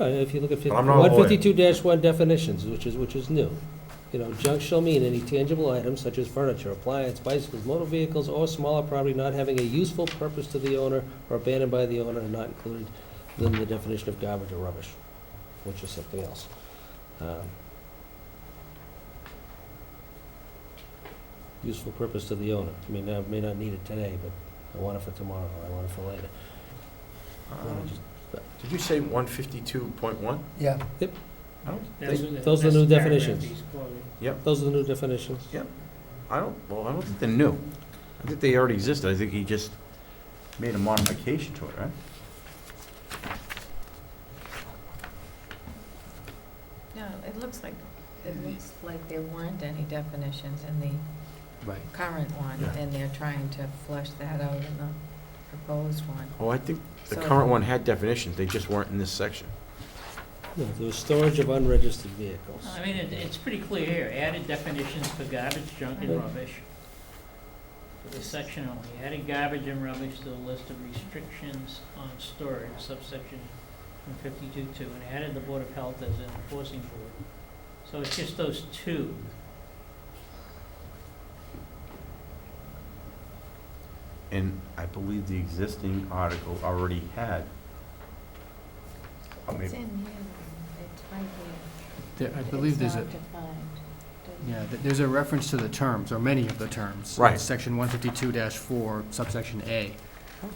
Uh, If you look at I'm not a lawyer. 152-1 definitions, which is, which is new. You know, junk shall mean any tangible item such as furniture, appliance, bicycles, motor vehicles, or smaller property not having a useful purpose to the owner or abandoned by the owner and not included within the definition of garbage or rubbish, which is something else. Um, Useful purpose to the owner. I mean, I may not need it today, but I want it for tomorrow, or I want it for later. Um, Did you say one fifty-two point one? Yeah, I don't, That's think- what the- Those are the that's new the paragraph definitions. he's quoting. Those are the new definitions. I don't, well, I don't think they're new. I think they already existed. I think he just made a modification to it, right? No, it looks like, it looks like there weren't any definitions in the right. current one, Yeah. and they're trying to flush that out in the proposed one. Oh, I think the So- current one had definitions. They just weren't in this section. No, there was storage of unregistered vehicles. I mean, it, it's pretty clear here, added definitions for garbage, junk, and Right. rubbish. For this section only, added garbage and rubbish to the list of restrictions on storage subsection one fifty-two two, and added the Board of Health as an enforcing board. So it's just those two. And I believe the existing article already had. Oh, It's maybe- in here, it's right here. There, I believe there's a, It's not defined. Doesn't- yeah, th- there's a reference to the terms, or many of the terms. Right. It's Section one fifty-two four subsection A.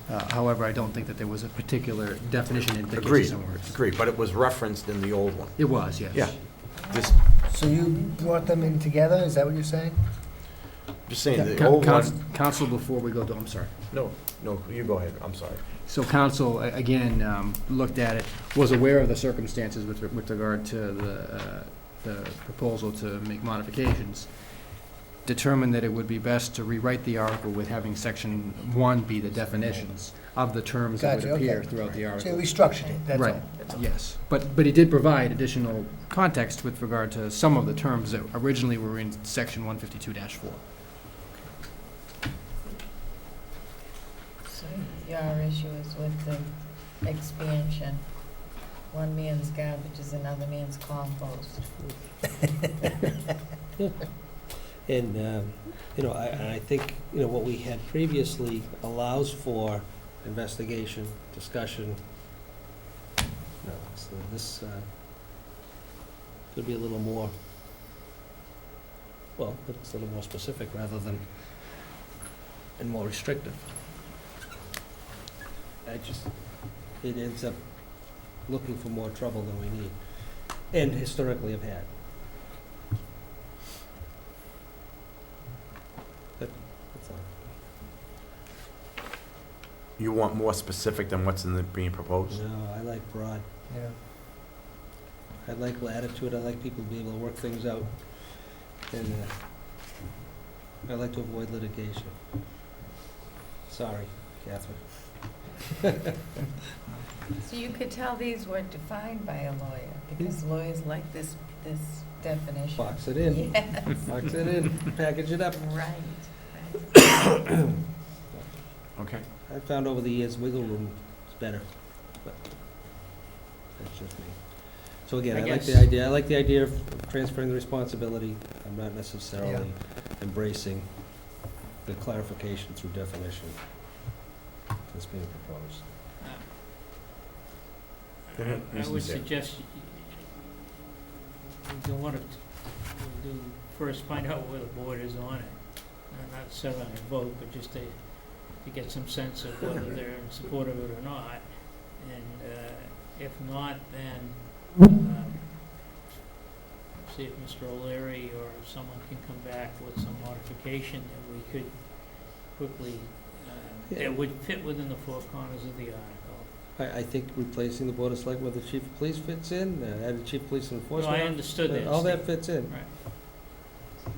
Uh, However, I don't think that there was a particular definition in Agreed. Dickinson's words. Agreed, but it was referenced in the old one. It was, yes. Yeah. This, So you brought them in together, is that what you're saying? just saying, the Coun- old counsel- one, Counsel, before we go, to- I'm sorry. no, no, you go ahead. I'm sorry. So council, a- again, um, looked at it, was aware of the circumstances with, with regard to the, uh, the proposal to make modifications, determined that it would be best to rewrite the article with having section one be the definitions of the terms that would Gotcha, okay. appear throughout the So article. you restructured it, that's Right, all. yes. But, but it did provide additional context with regard to some of the terms that originally were in section one fifty-two four. So Your issue is with the expansion. One man's garbage is another man's compost. And, um, you know, I, and I think, you know, what we had previously allows for investigation, discussion. No, so this, uh, could be a little more, well, it's a little more specific rather than, and more restrictive. I just, it ends up looking for more trouble than we need, and historically have had. That's all. You want more specific than what's in the, being proposed? No, I like broad. Yeah. I like latitude, I like people to be able to work things out. And uh, I like to avoid litigation. Sorry, Catherine. So you could tell these were defined by a lawyer, Hmm. because lawyers like this, this definition. Box it in, Yeah, box it in, package it up. right. Okay. I found over the years wiggle room is better, but that's just me. So again, I I like the guess- idea, I like the idea of transferring the responsibility. I'm not necessarily embracing the clarification through definition that's being proposed. Uh, Go ahead, I Mr. would Chair. suggest you- you don't want to, we'll do, first find out where the board is on it. Not- Not set on a vote, but just to, to get some sense of whether they're in support of it or not. And uh, if not, then um, see if Mr. O'Leary or someone can come back with some modification that we could quickly, uh, Yeah. that would fit within the four corners of the article. I, I think replacing the Board of Selectmen with the Chief of Police fits in, uh, added Chief of Police No, I Enforcement, Uh, understood that. all that Steve. fits in. Right. So,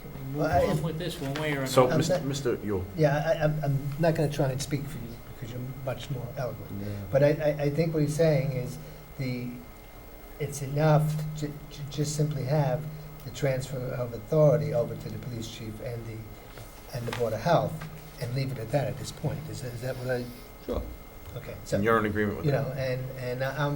can we move Well, I- on with this one way or another? So, Um, Mr. that- Mr. Yule, Yeah, I- I, I'm, I'm not gonna try and speak for you, because you're much more eloquent. But I, I, I think what he's saying is the, it's enough to, to just simply have the transfer of authority over to the police chief and the, and the board of health, and leave it at that at this point, is, that- is that what I, Sure. okay, so, and you you're in agreement with that? know, and, and I'm,